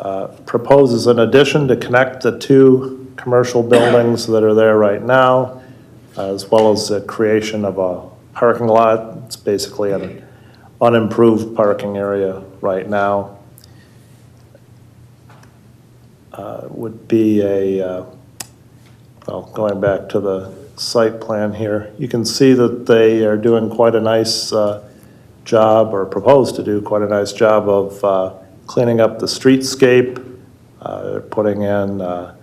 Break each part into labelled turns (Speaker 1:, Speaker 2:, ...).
Speaker 1: uh, proposes an addition to connect the two commercial buildings that are there right now, as well as the creation of a parking lot. It's basically an unimproved parking area right now. Uh, Would be a, uh, well, going back to the site plan here, you can see that they are doing quite a nice uh, job, or propose to do quite a nice job of uh, cleaning up the streetscape, uh, putting in uh,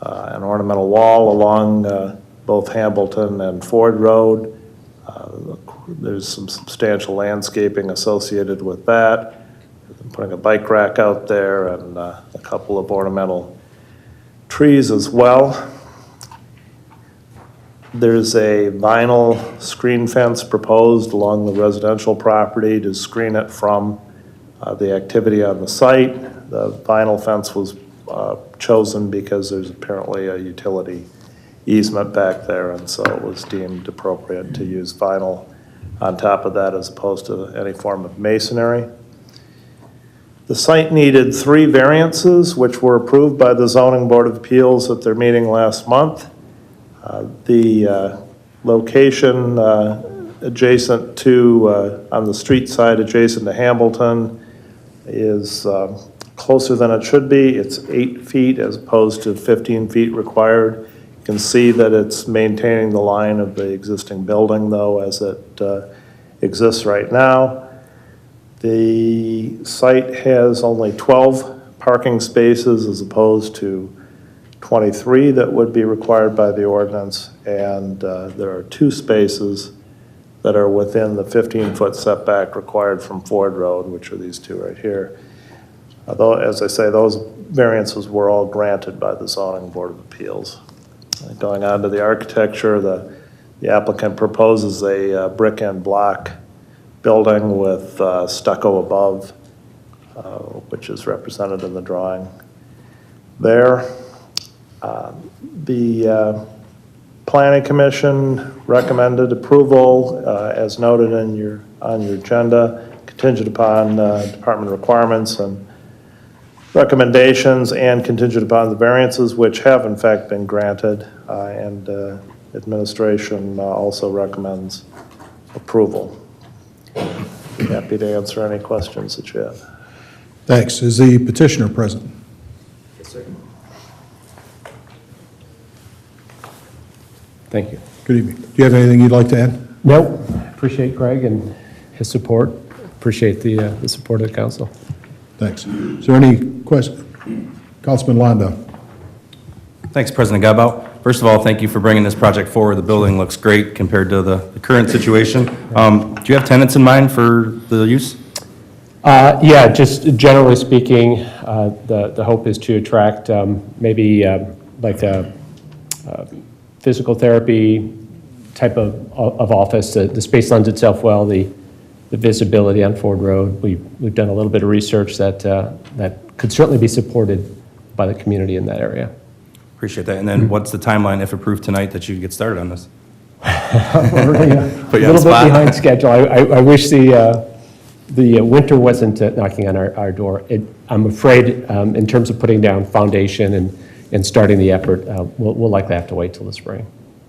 Speaker 1: uh, an ornamental wall along uh, both Hamilton and Ford Road. Uh, There's some substantial landscaping associated with that, putting a bike rack out there and uh, a couple of ornamental trees as well. There's a vinyl screen fence proposed along the residential property to screen it from uh, the activity on the site. The vinyl fence was uh, chosen because there's apparently a utility easement back there, and so it was deemed appropriate to use vinyl on top of that as opposed to any form of masonry. The site needed three variances, which were approved by the zoning board of appeals at their meeting last month. Uh, The uh, location uh, adjacent to, uh, on the street side adjacent to Hamilton is um, closer than it should be. It's eight feet as opposed to 15 feet required. You can see that it's maintaining the line of the existing building, though, as it uh, exists right now. The site has only 12 parking spaces as opposed to 23 that would be required by the ordinance, and uh, there are two spaces that are within the 15-foot setback required from Ford Road, which are these two right here. Although, as I say, those variances were all granted by the zoning board of appeals. Going on to the architecture, the the applicant proposes a uh, brick and block building with uh, stucco above, uh, which is represented in the drawing there. The uh, Planning Commission recommended approval, uh, as noted in your, on your agenda, contingent upon uh, department requirements and recommendations, and contingent upon the variances, which have in fact been granted, uh, and uh, administration uh, also recommends approval. Happy to answer any questions that you have.
Speaker 2: Thanks. Is the petitioner present?
Speaker 3: Thank you.
Speaker 2: Good evening. Do you have anything you'd like to add?
Speaker 3: No, appreciate Greg and his support. Appreciate the, uh, the support of the council.
Speaker 2: Thanks. Is there any question? Councilman Londo?
Speaker 4: Thanks, President Gabao. First of all, thank you for bringing this project forward. The building looks great compared to the the current situation. Um, Do you have tenants in mind for the use?
Speaker 3: Uh, yeah, just generally speaking, uh, the, the hope is to attract, um, maybe, um like a, uh, physical therapy type of, of office. The, the space lends itself well, the, the visibility on Ford Road. We, we've done a little bit of research that, uh, that could certainly be supported by the community in that area.
Speaker 4: Appreciate that. And then what's the timeline, if approved tonight, that you can get started on this?
Speaker 3: Already A
Speaker 4: Put you
Speaker 3: little
Speaker 4: on the
Speaker 3: bit
Speaker 4: spot.
Speaker 3: behind schedule. I, I I wish the, uh, the uh, winter wasn't uh, knocking on our, our door. It, I'm afraid, um, in terms of putting down foundation and, and starting the effort, uh, we'll, we'll likely have to wait till the spring.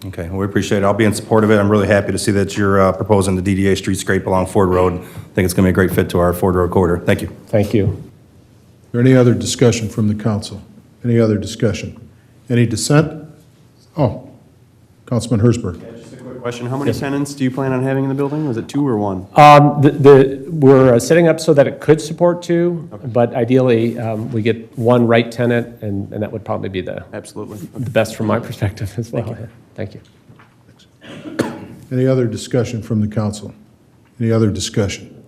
Speaker 4: Okay, well, we appreciate it. I'll be in support of it. I'm really happy to see that you're uh, proposing the DDA street scrape along Ford Road. I think it's going to be a great fit to our Ford Road corridor. Thank you.
Speaker 3: Thank you.
Speaker 2: Is there any other discussion from the council? Any other discussion? Any dissent? Oh, Councilman Hersberg.
Speaker 5: Just a quick question. How many tenants do you plan on having in the building? Was it two or one?
Speaker 3: Um, the, the, we're uh, setting up so that it could support two, but ideally, um, we get one right tenant, and, and that would probably be the,
Speaker 5: Absolutely.
Speaker 3: the best from my perspective as well. Thank you.
Speaker 2: Any other discussion from the council? Any other discussion?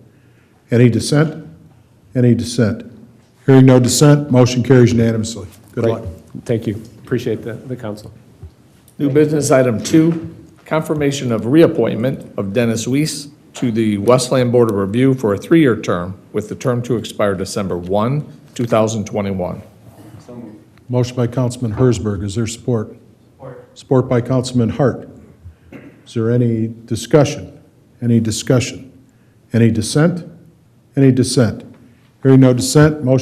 Speaker 2: Any dissent? Any dissent? Hearing no dissent, motion carries unanimously. Good
Speaker 3: Great.
Speaker 2: luck.
Speaker 3: Thank you. Appreciate the, the council.
Speaker 6: New business item two, confirmation of reappointment of Dennis Weiss to the Westland Board of Review for a three-year term with the term to expire December 1, 2021.
Speaker 2: Motion by Councilman Hersberg, is there support? Support. Support by Councilman Hart. Is there any discussion? Any discussion? Any dissent? Any dissent? Hearing no dissent, motion